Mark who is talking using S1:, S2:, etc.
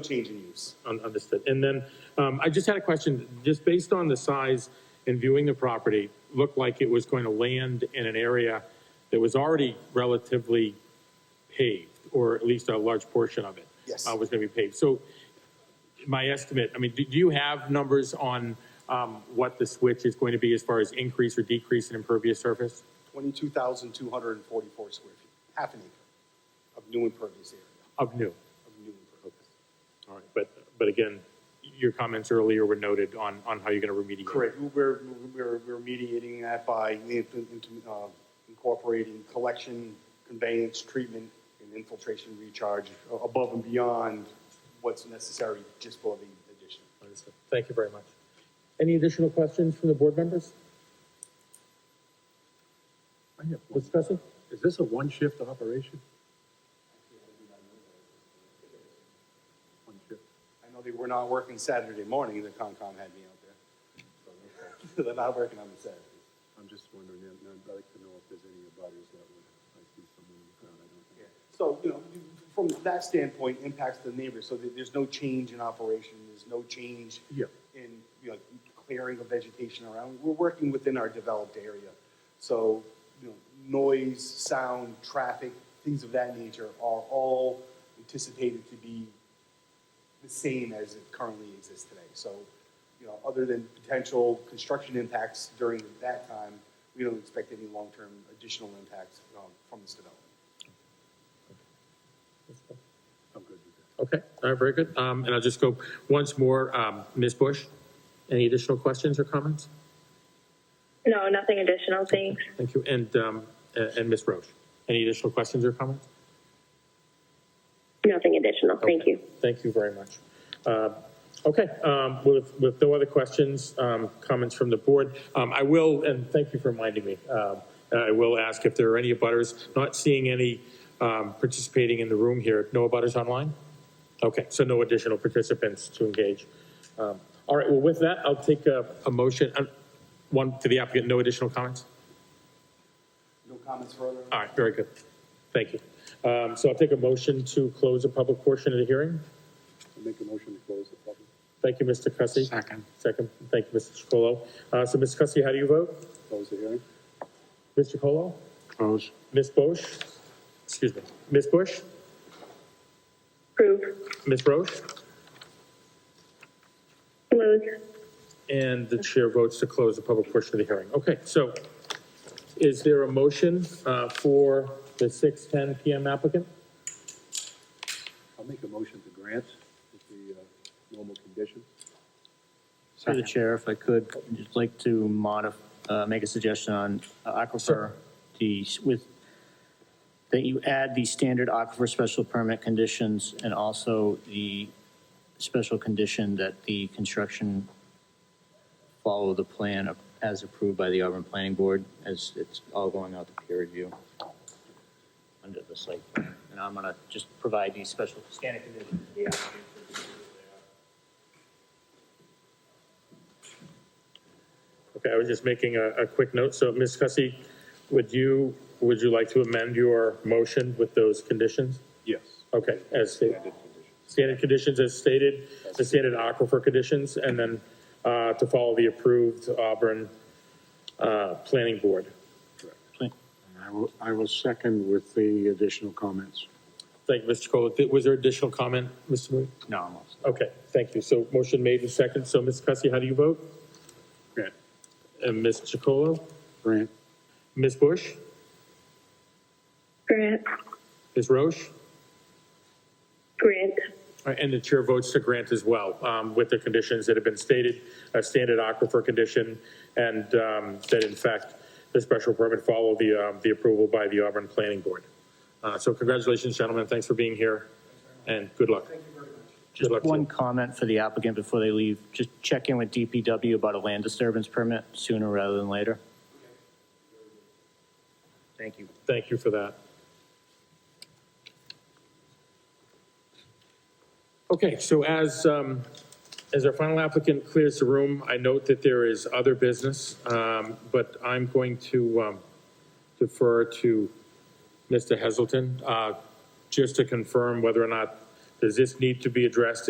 S1: change in use.
S2: Un- Understood. And then, um, I just had a question, just based on the size and viewing the property, looked like it was going to land in an area that was already relatively paved, or at least a large portion of it.
S1: Yes.
S2: Uh, was gonna be paved. So my estimate, I mean, do, do you have numbers on, um, what the switch is going to be as far as increase or decrease in impervious surface?
S1: Twenty-two thousand two hundred and forty-four square feet, half an acre of new impervious area,
S2: Of new.
S1: of new impervious.
S2: All right, but, but again, your comments earlier were noted on, on how you're gonna remediate.
S1: Correct, we're, we're, we're mediating that by in- in- uh, incorporating collection, conveyance, treatment, and infiltration recharge uh, above and beyond what's necessary just for the addition.
S2: Understood. Thank you very much. Any additional questions from the board members?
S3: I have one.
S2: Mr. Tressi?
S3: Is this a one-shift operation? One shift.
S1: I know they were not working Saturday morning, the Concom had me out there. They're not working on the Saturdays.
S3: I'm just wondering, and I'd like to know if there's any abutters that would, I see someone in the crowd, I don't think.
S1: So, you know, from that standpoint, impacts the neighbors, so there- there's no change in operation, there's no change
S3: Yeah.
S1: in, you know, clearing of vegetation around. We're working within our developed area. So, you know, noise, sound, traffic, things of that nature are all anticipated to be the same as it currently exists today. So, you know, other than potential construction impacts during that time, we don't expect any long-term additional impacts um, from this development.
S3: I'm good with that.
S2: Okay, all right, very good. Um, and I'll just go once more, um, Ms. Bush, any additional questions or comments?
S4: No, nothing additional, thanks.
S2: Thank you. And, um, a- and Ms. Roche, any additional questions or comments?
S4: Nothing additional, thank
S2: Okay.
S4: you.
S2: Thank you very much. Uh, Okay, um, with, with no other questions, um, comments from the board, um, I will, and thank you for reminding me, um, I will ask if there are any abutters, not seeing any um, participating in the room here, no abutters online? Okay, so no additional participants to engage. Um, All right, well, with that, I'll take a, a motion, uh, one to the applicant, no additional comments?
S1: No comments further?
S2: All right, very good. Thank you. Um, So I'll take a motion to close the public portion of the hearing.
S3: I make a motion to close the public.
S2: Thank you, Mr. Cussy.
S5: Second.
S2: Second, thank you, Mr. Chacolo. Uh, so, Mr. Cussy, how do you vote?
S3: Close the hearing?
S2: Mr. Chacolo?
S5: Close.
S2: Ms. Bush? Excuse me. Ms. Bush?
S4: Approve.
S2: Ms. Roche?
S4: Close.
S2: And the chair votes to close the public portion of the hearing. Okay, so is there a motion, uh, for the 6:10 PM applicant?
S3: I'll make a motion to grant with the, uh, normal conditions.
S6: Through the chair, if I could, I'd just like to modif, uh, make a suggestion on uh, aquifer, the, s- with, that you add the standard aquifer special permit conditions and also the special condition that the construction follow the plan of- as approved by the Auburn Planning Board, as it's all going out to peer review under the site. plan. And I'm gonna just provide these special standard conditions. to the applicant so it's clear what they are.
S2: Okay, I was just making a, a quick note. So, Ms. Cussy, would you, would you like to amend your motion with those conditions?
S3: Yes.
S2: Okay, as stated.
S3: Standard conditions.
S2: standard conditions as stated, the standard aquifer conditions, and then uh, to follow the approved Auburn uh, Planning Board.
S5: I will, I will second with the additional comments.
S2: Thank you, Mr. Chacolo. Was there additional comment, Mr. Moody?
S6: No, I'm all set.
S2: Okay, thank you. So motion made and second. So Ms. Cussy, how do you vote?
S3: Grant.
S2: And Ms. Chacolo?
S5: Grant,
S2: Ms. Bush?
S4: Grant.
S2: Ms. Roche?
S4: Grant.
S2: All right, uh, And the chair votes to grant as well, um, with the conditions that have been stated, a standard aquifer condition, and um, that in fact, the special permit follow the, um, the approval by the Auburn Planning Board. Uh, So congratulations, gentlemen, thanks for being here, and good luck. Thank you very much. Good luck
S6: Just
S2: to
S6: one
S2: you.
S6: comment for the applicant before they leave. Just check in with DPW about a land disturbance permit sooner rather than later. Thank you.
S2: Thank you for that. Okay, so as, um, as our final applicant clears the room, I note that there is other business, um, but I'm going to um, defer to Mr. Heselton, uh, just to confirm whether or not, does this need to be addressed